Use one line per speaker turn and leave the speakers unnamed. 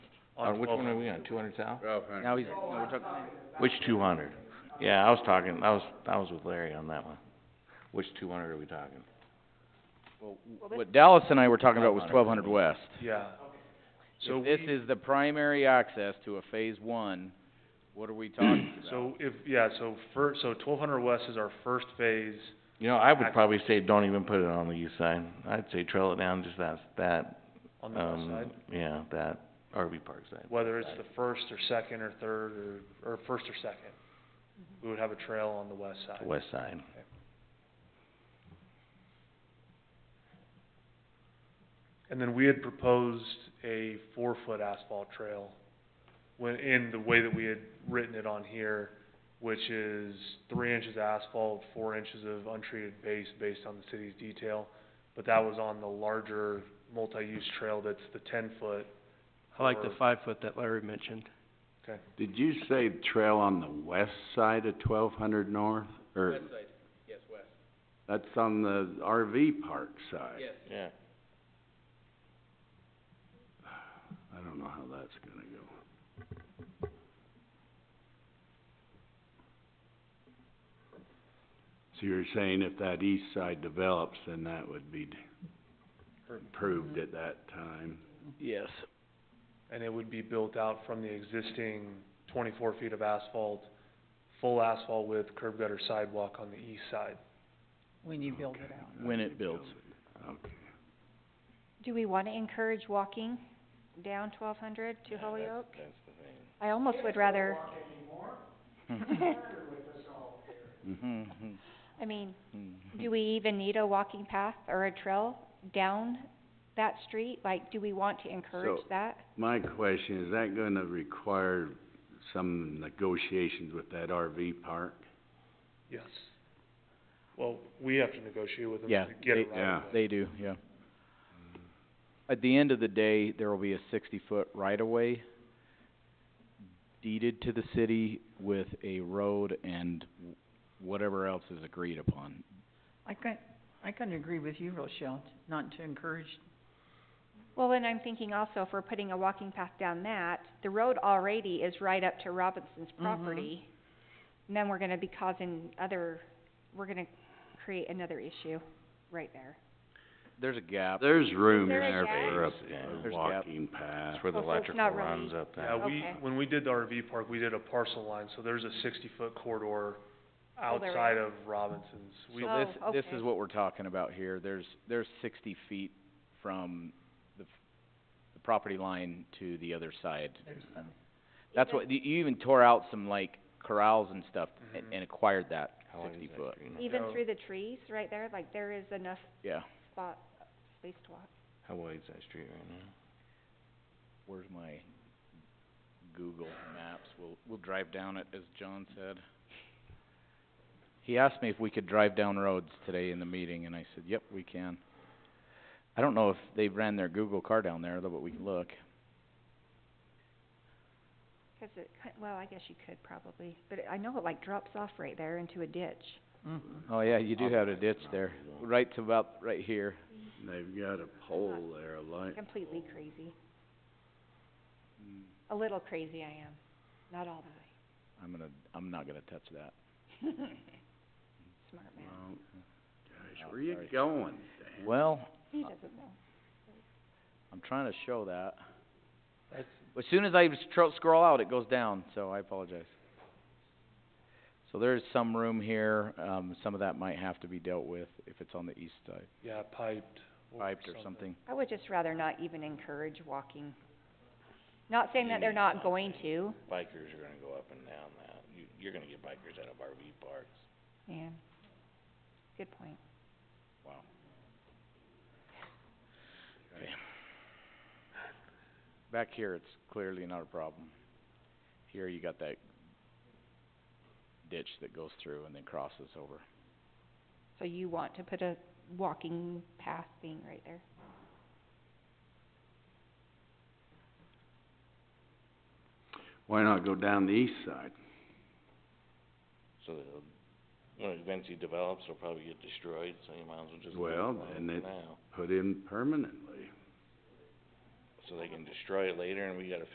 On
Uh, which one are we on, two hundred south?
Now he's, no, we're talking,
Which two hundred? Yeah, I was talking, I was, I was with Larry on that one. Which two hundred are we talking?
well, what Dallas and I were talking about was
1200.
twelve hundred west.
Yeah. So
If this
we-
is the primary access to a phase one, what are we talking about?
So if, yeah, so fir- so twelve hundred west is our first phase,
You know, I would
Ac-
probably say don't even put it on the east side. I'd say trail it down just that, that,
on the west
um,
side,
yeah, that RV park side.
whether it's
side.
the first or second or third or, or first or second.
Mm-hmm.
We would have a trail on the west side.
West side.
And then we had proposed a four-foot asphalt trail when, in the way that we had written it on here, which is three inches asphalt, four inches of untreated base based on the city's detail. But that was on the larger multi-use trail that's the ten-foot.
I like the
or-
five foot that Larry mentioned.
Did you say trail on the west side of twelve hundred north, or? West side, yes, west. That's on the RV park side. Yes.
Yeah.
I don't know how that's gonna go. So you're saying if that east side develops, then that would be d- approved at that time?
Yes.
And it would be built out from the existing twenty-four feet of asphalt, full asphalt with curb gutter sidewalk on the east side.
when you build it out.
When it builds.
Okay.
Do we wanna encourage walking down twelve hundred to Holyoke?
That's the thing.
I almost would rather,
Mhm.
I mean,
Mm-hmm.
Mhm.
do we even need a walking path or a trail down that street? Like, do we want to encourage
So-
that?
My question, is that gonna require some negotiations with that RV park?
Yes. Well, we have to negotiate with them
Yeah,
to get
they-
it right.
yeah.
They do, yeah. At the end of the day, there will be a sixty-foot right-of-way deeded to the city with a road and w- whatever else is agreed upon.
I couldn't, I couldn't agree with you, Rochelle, not to encourage,
Well, and I'm thinking also if we're putting a walking path down that, the road already is right up to Robinson's
Mm-hmm.
property. And then we're gonna be causing other, we're gonna create another issue right there.
There's a gap.
There's room
there a
there
gap?
for a,
Yeah.
a
There's a gap.
walking path.
That's where the
Oh, so it's
electrical
not
runs
really-
up there.
Yeah, we,
Okay.
when we did the RV park, we did a parcel line, so there's a sixty-foot corridor
Oh, there
outside
is?
of Robinson's. We,
So this,
Oh,
this
okay.
is what we're talking about here. There's, there's sixty feet from the, f- the property line to the other side.
there's some,
That's what, you you even tore out some like corrals and stuff and,
Mhm.
and acquired that
Mm-hmm. How long is
sixty
that
foot,
green?
Even
So-
through the trees right there, like there is enough
yeah.
spot, space to walk.
How wide's that street right now?
Where's my Google Maps? We'll, we'll drive down it, as John said. He asked me if we could drive down roads today in the meeting, and I said, yep, we can. I don't know if they ran their Google car down there, though, but we can look.
Cause it, ki- well, I guess you could probably, but it- I know it like drops off right there into a ditch.
mhm.
Oh, yeah, you do have a ditch
Not
there,
Google.
right to about, right here.
They've got a pole there, a light.
Completely crazy. A little crazy I am, not all the
I'm gonna, I'm not gonna touch that.
way. Smart man.
Oh, Gosh,
Oh,
where you
sorry.
going, Dan?
Well,
He doesn't know.
I'm trying to show that.
That's-
As soon as I s- tro- scroll out, it goes down, so I apologize. So there's some room here, um, some of that might have to be dealt with if it's on the east side,
yeah, piped or
piped or something.
I would just rather not even encourage walking. Not saying that they're not going to,
Bikers are gonna go up and down that. You, you're gonna get bikers out of RV parks.
yeah. Good point.
Wow.
Okay.
Back here, it's clearly not a problem. Here, you got that ditch that goes through and then crosses over.
So you want to put a walking path thing right there?
Why not go down the east side?
So they'll, when it eventually develops, it'll probably get destroyed, so you might as well just leave it
Well,
alone
then
for
it-
now.
Put in permanently.
So they can destroy it later and we gotta